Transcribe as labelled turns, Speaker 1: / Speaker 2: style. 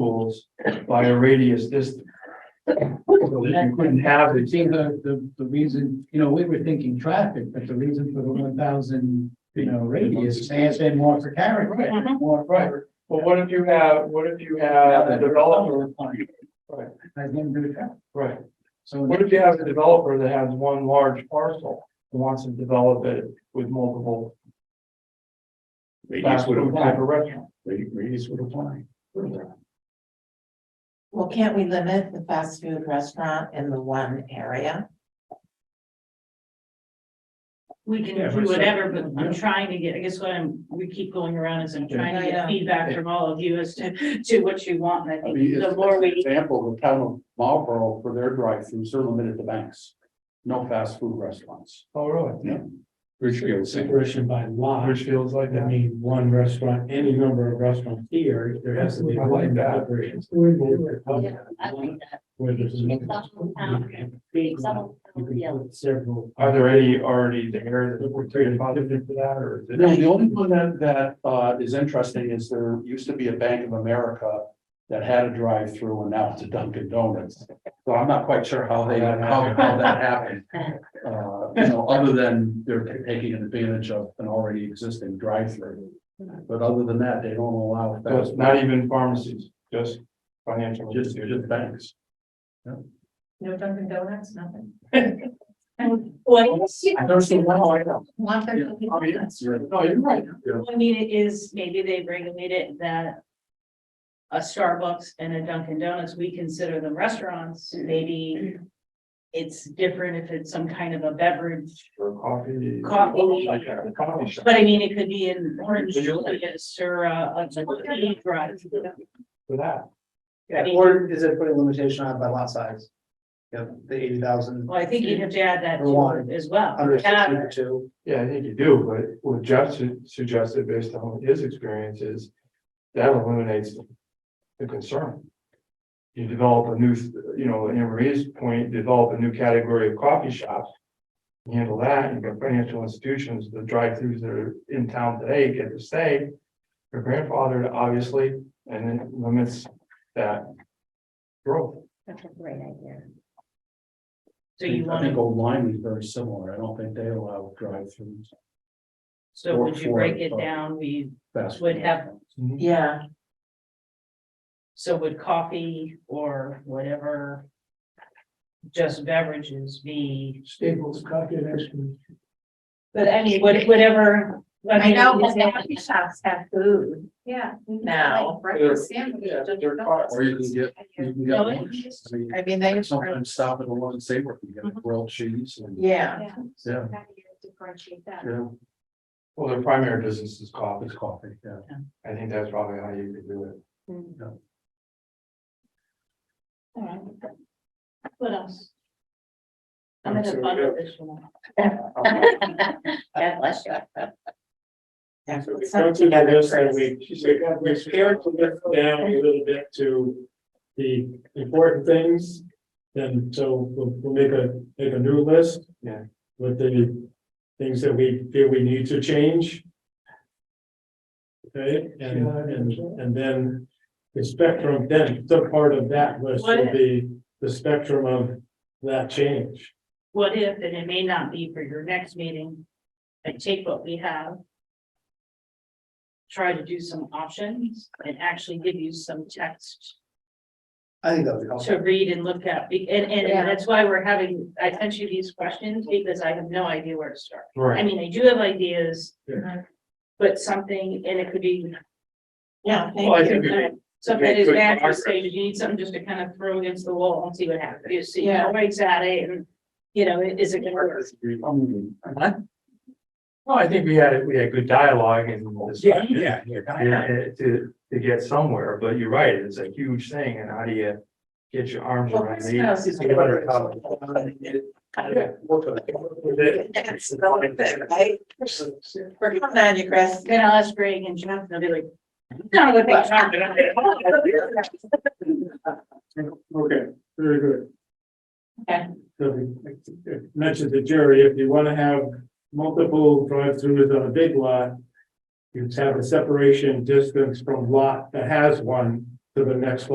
Speaker 1: tools by a radius distance. So that you couldn't have
Speaker 2: It
Speaker 1: it,
Speaker 2: seems the, the, the reason, you know, we were thinking traffic, but the reason for the one thousand, you know, radius has been more for character, more for.
Speaker 1: but what if you have, what if you have a developer,
Speaker 2: Right. Has nothing to do with traffic.
Speaker 1: right,
Speaker 2: So.
Speaker 1: what if you have a developer that has one large parcel? and Wants to develop it with multiple
Speaker 3: Radius
Speaker 1: fast
Speaker 3: would
Speaker 1: food type
Speaker 3: apply,
Speaker 1: of restaurant.
Speaker 3: radius would apply.
Speaker 4: Well, can't we limit the fast food restaurant in the one area?
Speaker 5: We can
Speaker 2: Yeah,
Speaker 5: do
Speaker 2: but so-
Speaker 5: whatever, but
Speaker 2: yeah.
Speaker 5: I'm trying to get, I guess what I'm, we keep going around is I'm trying
Speaker 4: I
Speaker 5: to
Speaker 4: know.
Speaker 5: get feedback from all of you as to, to what you want. And I
Speaker 3: I mean,
Speaker 5: think
Speaker 3: it's
Speaker 5: the
Speaker 3: it's
Speaker 5: more
Speaker 3: an
Speaker 5: we,
Speaker 3: example, the town of Marlboro for their drive-throughs are limited to banks. No fast food restaurants.
Speaker 1: Oh, really?
Speaker 3: Richfield,
Speaker 6: separation by lot,
Speaker 1: Which feels like
Speaker 6: I
Speaker 1: that.
Speaker 6: mean, one restaurant, any number of restaurants here, there has to be.
Speaker 1: I like that.
Speaker 6: Separations. Where there's. You can put Several.
Speaker 1: Are there any already there that were created positive for that, or is it?
Speaker 3: No, the only one that, that, uh, is interesting is there used to be a Bank of America that had a drive-through and now it's a Dunkin' Donuts. So I'm not quite sure how they, how, how that happened. Uh, you know, other than they're ta- taking advantage of an already existing drive-through. But other than that, they don't allow.
Speaker 1: So it's
Speaker 3: fast-
Speaker 1: not even pharmacies, just financial.
Speaker 3: Just, just banks.
Speaker 4: No Dunkin' Donuts, nothing.
Speaker 5: what is,
Speaker 3: I know.
Speaker 4: Want there to be
Speaker 3: Oh, yes,
Speaker 4: donuts.
Speaker 3: you're, no, you're right. Yeah.
Speaker 5: I mean, it is, maybe they've regulated that a Starbucks and a Dunkin' Donuts, we consider them restaurants, maybe it's different if it's some kind of a beverage.
Speaker 1: Or coffee.
Speaker 5: Coffee.
Speaker 1: Like a coffee shop.
Speaker 5: But I mean, it could be an orange
Speaker 1: But you're-
Speaker 5: julius or a, a tea drive.
Speaker 1: For that.
Speaker 5: I mean-
Speaker 2: or is it putting limitation on by lot size? Yeah, the eighty thousand
Speaker 5: Well, I think you'd have to add that
Speaker 2: Or
Speaker 5: to
Speaker 2: one.
Speaker 5: it as well. Yeah.
Speaker 2: two.
Speaker 1: Yeah, I think you do, but what Jeff su- suggested based on his experience is that eliminates the concern. You develop a new, you know, in Marie's point, develop a new category of coffee shops. You Handle that, you've got financial institutions, the drive-throughs that are in town today get to stay. Your grandfather, obviously, and it limits that growth.
Speaker 4: That's a great idea.
Speaker 5: So you
Speaker 3: I
Speaker 5: want
Speaker 3: think
Speaker 5: to,
Speaker 3: Old Lyme is very similar. I don't think they allow drive-throughs.
Speaker 5: so would you
Speaker 3: for-
Speaker 5: break it
Speaker 3: for-
Speaker 5: down? We,
Speaker 3: fast
Speaker 5: Would
Speaker 3: food
Speaker 5: have-
Speaker 3: restaurants.
Speaker 4: Yeah,
Speaker 5: so would coffee or whatever just beverages be,
Speaker 2: Staples, coffee and ice cream.
Speaker 4: but I mean,
Speaker 5: what- whatever.
Speaker 4: I know,
Speaker 5: mean, is
Speaker 4: but the
Speaker 5: it-
Speaker 4: coffee shops have food. Yeah. Now.
Speaker 3: Yeah, they're hot, Or you can get, you can get
Speaker 5: No,
Speaker 3: lunch. I mean,
Speaker 4: I mean, they. Mhm.
Speaker 3: Sometimes stop at a one and say, we can get a grilled cheese and,
Speaker 4: Yeah,
Speaker 3: yeah,
Speaker 7: How do you differentiate that?
Speaker 3: yeah,
Speaker 1: Well, their primary business is coffee.
Speaker 3: it's coffee, yeah.
Speaker 1: I think that's probably how you could do it.
Speaker 5: All right. What else? I'm
Speaker 1: Um, so
Speaker 5: gonna
Speaker 1: we
Speaker 5: bundle
Speaker 1: got-
Speaker 5: this one.
Speaker 4: God bless you. Yeah,
Speaker 6: So we
Speaker 4: let's
Speaker 6: go
Speaker 4: not
Speaker 6: through the
Speaker 4: together,
Speaker 6: list and
Speaker 4: Chris.
Speaker 6: we, we, we scaled the list down a little bit to the important things. And so we'll, we'll make a, make a new list.
Speaker 1: Yeah.
Speaker 6: With the things that we feel we need to change. Okay, and, and, and then the spectrum, then the part of that list will
Speaker 5: What-
Speaker 6: be the spectrum of that change.
Speaker 5: What if, and it may not be for your next meeting, I take what we have. Try to do some options and actually give you some text
Speaker 2: I think that would be helpful.
Speaker 5: to read and look at, be- and, and
Speaker 4: Yeah.
Speaker 5: that's why we're having, I sent you these questions because I have no idea where to start. I
Speaker 1: Right.
Speaker 5: mean, I do have ideas.
Speaker 4: Yeah.
Speaker 5: But something, and it could be,
Speaker 4: Yeah,
Speaker 1: Well, I
Speaker 4: thank
Speaker 1: think
Speaker 4: you.
Speaker 1: we-
Speaker 5: something that is
Speaker 1: Good
Speaker 5: bad for
Speaker 1: progress.
Speaker 5: stage, you need something just to kind of throw against the wall and see what happens, you see,
Speaker 4: Yeah.
Speaker 5: nobody's at it, and, you know, is it gonna work?
Speaker 3: Um,
Speaker 1: Well, I think we had, we had good dialogue and discussion.
Speaker 3: yeah.
Speaker 1: And eh, to, to get somewhere, but you're right, it's a huge thing, and how do you get your arms
Speaker 4: Well,
Speaker 1: around
Speaker 4: Chris
Speaker 1: it?
Speaker 4: knows.
Speaker 1: It's a better topic. Yeah, work on it. Work with it.
Speaker 4: That's relevant, right? We're coming on you, Chris.
Speaker 5: Then I'll ask Greg and Jeff, and they'll be like, no, the thing's not gonna.
Speaker 6: Okay, very good.
Speaker 4: Okay.
Speaker 6: So we mentioned to Jerry, if you want to have multiple drive-throughs on a big lot, you just have a separation distance from lot that has one
Speaker 1: to the next